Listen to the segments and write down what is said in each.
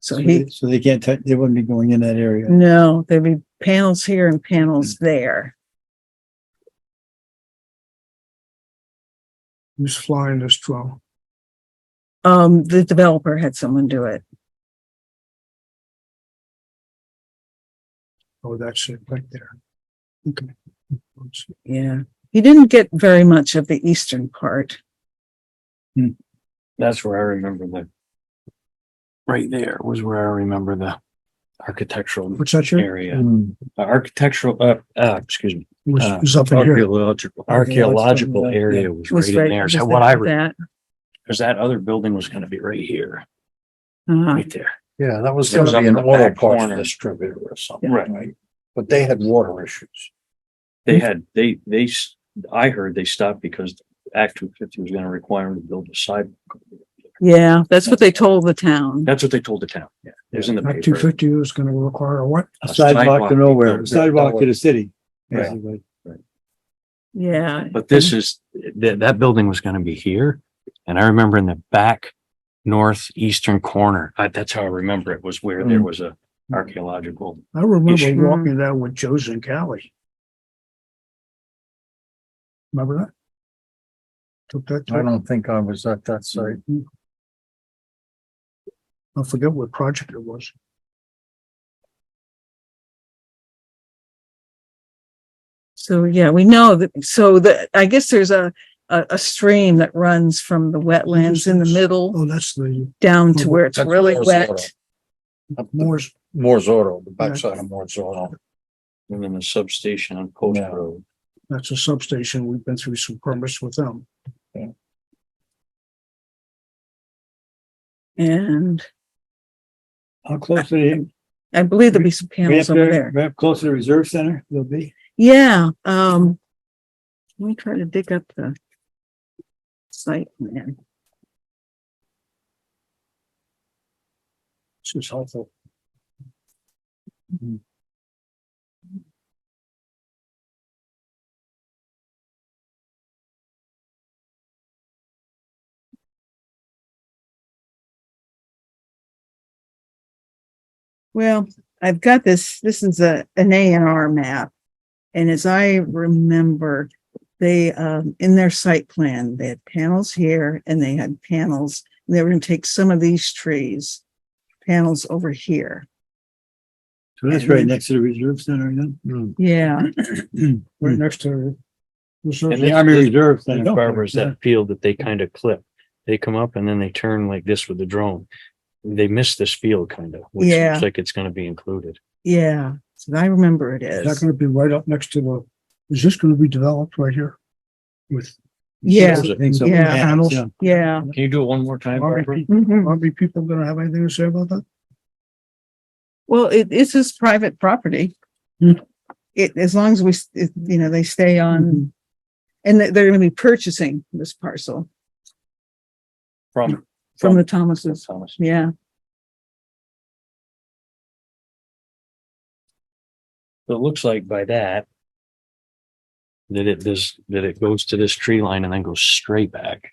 So he, So they can't, touch- they wouldn't be going in that area. no, there'd be panels here and panels there. Who's flying this drone? Um, the developer had someone do it. Oh, that's it right there. Okay. Oops. Yeah. He didn't get very much of the eastern part. That's where I remember the. right there was where I remember the architectural What's that here? area, Hmm. The architectural, uh, uh, excuse me, Was, Uh, was up in here. Archaeological. archaeological area was right Was in there. So was what I, that- re- That, cause that other building was gonna be right here, uh, right there. Yeah, that was It was gonna be up in an the oil back parts corner. distributor or something, Right. right? But they had water issues. They had, they, they, s- I heard they stopped because Act two fifty was gonna require them to build a sidewalk. yeah, that's what they told the town. That's what they told the town. Yeah. It was in the Act two paper. fifty was gonna require a what? A Sidewalk to nowhere, sidewalk to the city. Yeah. basically. Yeah. But this is, that, that building was gonna be here. And I remember in the back northeastern corner, I, that's how I remember it, was where there was a archaeological. I remember Issue. walking down with Joe Zincali. Remember that? Took that, I time. don't think I was at that site. I forget what project it was. So, yeah, we know that, so that, I guess there's a, a, a stream that runs from the wetlands in the middle Oh, that's the down to where it's That's really Moore's Law. wet. Up the- Moore's, Moore's Auto, the backside of Moore's Auto. And then the substation on Post Yeah. Road. that's a substation. We've been through some permits with them. And How close to the, I believe there'll be some right up panels over there, there. right up close to the reserve center, they'll be. Yeah, um, let me try to dig up the site plan. This is helpful. Well, I've got this, this is a, an A and R map. And as I remember, they, um, in their site plan, they had panels here and they had panels. and They were gonna take some of these trees, panels over here. So that's right next to the reserve center then. Yeah. Right next to. And The this- Army this- Reserve And Center. Barbara is that field that they kind of clip. They come up and then they turn like this with the drone. They miss this field kind of, which Yeah. looks like it's gonna be included. Yeah, so I remember it Is that is. gonna be right up next to the, is this gonna be developed right here? With Yeah, Those are- Things up Yeah. in the panels, yeah. yeah. mm-hmm. Can you do it one more time? Barbara? Army, Army people gonna have anything to say about that? Well, it, it's his private property. Hmm. It, as long as we, s- it- you know, they stay on, and they- they're gonna be purchasing this parcel From. from the Thomases. Thomas. Yeah, So It looks like by that. That it does, that it goes to this tree line and then goes straight back.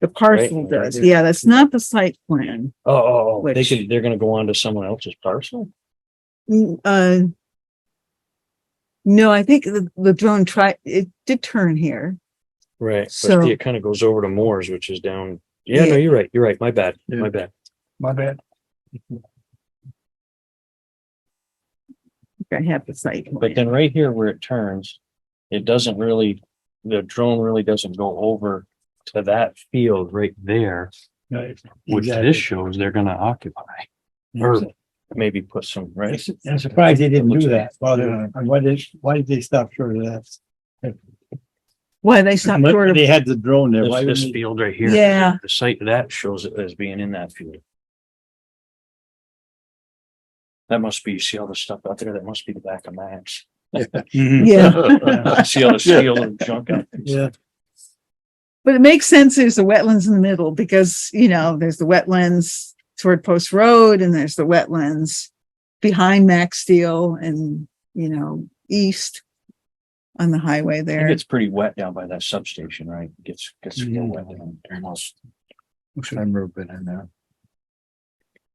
the parcel Right, does. right. Yeah, that's not the site plan. Oh, oh, oh. They can, they're gonna go on to someone else's parcel? Mm, Uh, no, I think the, the drone tried, it did turn here. Right. So- But it kind of goes over to Moore's, which is down. Yeah, Yeah. no, you're right. You're right. My bad. My bad. My bad. I think I have the site. But plan. then right here where it turns, it doesn't really, the drone really doesn't go over to that field right there, Right. which Exactly. this shows they're gonna occupy. Or maybe put some, right? It's- I'm surprised they didn't do that. Well, they're- Why did, why did they stop short of that? Why they stopped short of, They had the drone there. Why This, didn't this they- field right here. Yeah. The site of that shows it as being in that field. That must be, you see all the stuff out there? That must be the back of Max. Mhm. yeah, See all the steel and junk out there? Yeah. but it makes sense there's the wetlands in the middle because, you know, there's the wetlands toward Post Road and there's the wetlands behind Max Steel and, you know, east on the highway I think there. it's pretty wet down by that substation, right? Gets, gets real wet down there. Which I remember been in there.